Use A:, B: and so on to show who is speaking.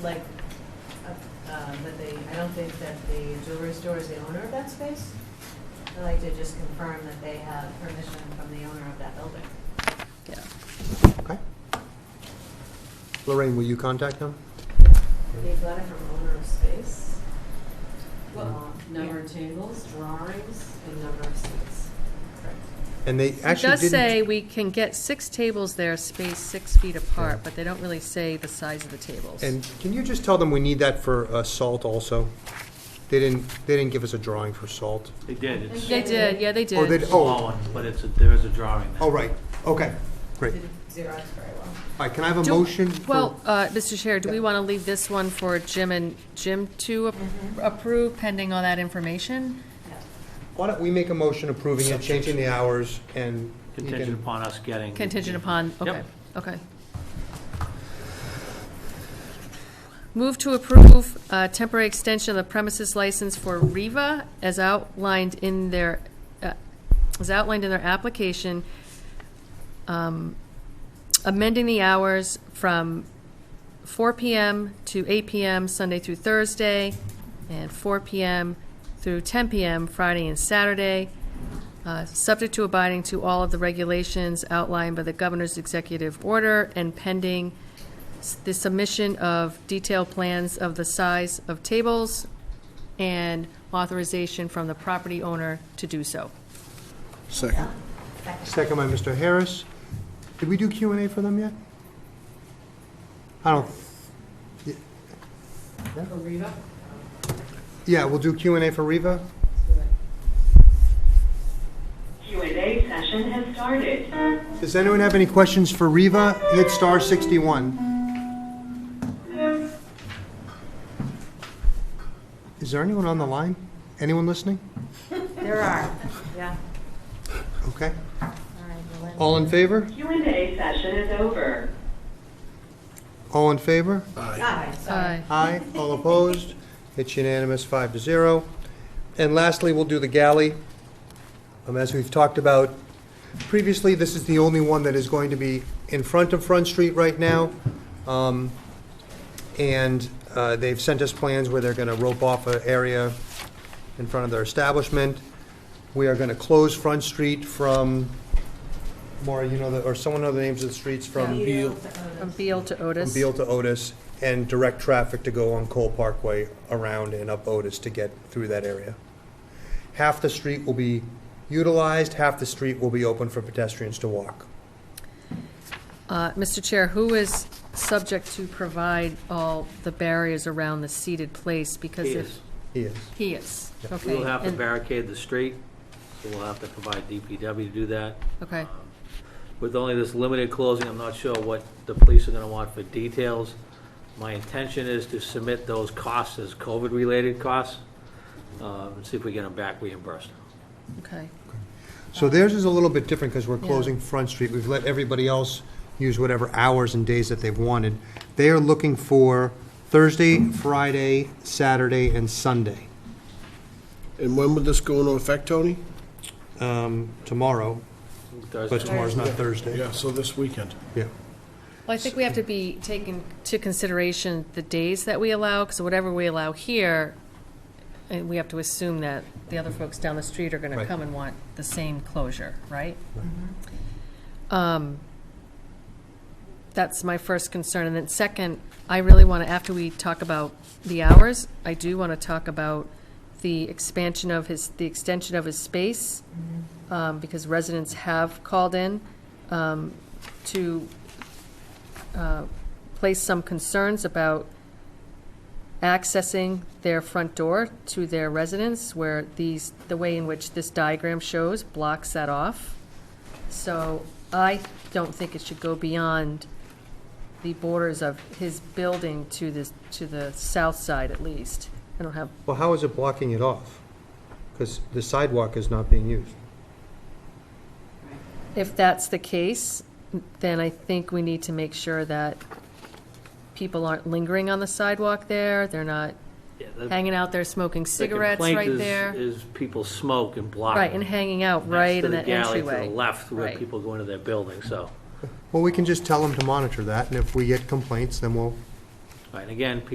A: like, uh, uh, that they, I don't think that the jewelry store is the owner of that space. I'd like to just confirm that they have permission from the owner of that building.
B: Yeah.
C: Okay. Lorraine, will you contact them?
A: They've got it from owner of space. Um,
D: Well, number of tables, drawings, and number of seats.
C: And they
B: It
C: actually
B: does say
C: didn't,
B: we can get six tables there spaced six feet apart, but they don't really say the size of the tables.
C: and can you just tell them we need that for uh, salt also? They didn't, they didn't give us a drawing for salt.
E: They did, it's
B: They did, yeah, they
C: Oh, they,
B: did.
C: oh,
E: one, but it's, a- there is a drawing. there.
C: oh, right, okay, great. All
A: Xerox very well.
C: right, can I have a
B: Do-
C: motion? for-
B: Well, uh, Mr. Chair, do we
C: Yeah.
B: want to leave this one for Jim and Jim to ap- approve pending all that information?
C: Why don't we make a motion approving it, changing the hours, and you
E: Contingent
C: can,
E: upon us getting.
B: Contingent upon,
E: Yep.
B: okay, okay. Move to approve uh, temporary extension of the premises license for Riva as outlined in their, uh, as outlined in their application, um, amending the hours from 4 PM to 8 PM Sunday through Thursday, and 4 PM through 10 PM Friday and Saturday, uh, subject to abiding to all of the regulations outlined by the governor's executive order and pending s- the submission of detailed plans of the size of tables and authorization from the property owner to do so.
F: Second.
C: second by Mr. Harris. Did we do Q and A for them yet? I don't,
D: For Reva?
C: yeah, we'll do Q and A for Riva?
G: Q&A session has started.
C: Does anyone have any questions for Riva? Hit star 61. Is there anyone on the line? Anyone listening?
A: There are, yeah.
C: Okay. All in favor?
G: Q&A session is over.
C: All in favor?
A: Aye, sorry.
B: Aye.
C: Aye. All opposed? It's unanimous, five to zero. And lastly, we'll do the galley. Um, As we've talked about previously, this is the only one that is going to be in front of Front Street right now. Um, And uh, they've sent us plans where they're going to rope off an area in front of their establishment. We are going to close Front Street from, Maura, you know, the- or someone know the names of the streets from?
A: Beal.
B: From Beal to
C: from
B: Otis.
C: Beal to Otis, and direct traffic to go on Cole Parkway around and up Otis to get through that area. Half the street will be utilized, half the street will be open for pedestrians to walk.
B: Uh, Mr. Chair, who is subject to provide all the barriers around the seated place? Because
E: He
B: if
E: is.
C: Yes.
B: He is, okay.
E: We'll have to
B: and-
E: barricade the street, so we'll have to provide DPW to do that. Um,
B: Okay,
E: With only this limited closing, I'm not sure what the police are gonna want for details. My intention is to submit those costs as COVID-related costs, uh, and see if we get them back reimbursed.
B: okay.
C: So theirs is a little bit different because we're
B: Yeah.
C: closing Front Street. We've let everybody else use whatever hours and days that they've wanted. They are looking for Thursday, Friday, Saturday, and Sunday.
F: And when would this go into effect, Tony?
C: Um, Tomorrow,
E: Thursday.
C: but tomorrow's not Thursday.
F: Yeah, so this weekend.
C: Yeah.
B: Well, I think we have to be taking to consideration the days that we allow, because whatever we allow here, and we have to assume that the other folks down the street are gonna
C: Right.
B: come and want the same closure, right? Um, That's my first concern, and then second, I really wanna, after we talk about the hours, I do wanna talk about the expansion of his, the extension of his space, um, because residents have called in, um, to uh, place some concerns about accessing their front door to their residence, where these, the way in which this diagram shows blocks that off. So I don't think it should go beyond the borders of his building to this, to the south side at least. I don't have,
C: Well, how is it blocking it off? Because the sidewalk is not being used.
B: if that's the case, then I think we need to make sure that people aren't lingering on the sidewalk there, they're not
E: Yeah, the-
B: hanging out there smoking
E: the
B: cigarettes
E: complaint
B: right
E: is-
B: there.
E: Is people smoke and block.
B: Right, and hanging out
E: next
B: right
E: to
B: in
E: the
B: that
E: galley To
B: entryway.
E: the left where
B: Right.
E: people go into their building, so.
C: Well, we can just tell them to monitor that, and if we get complaints, then we'll
E: Right, and again,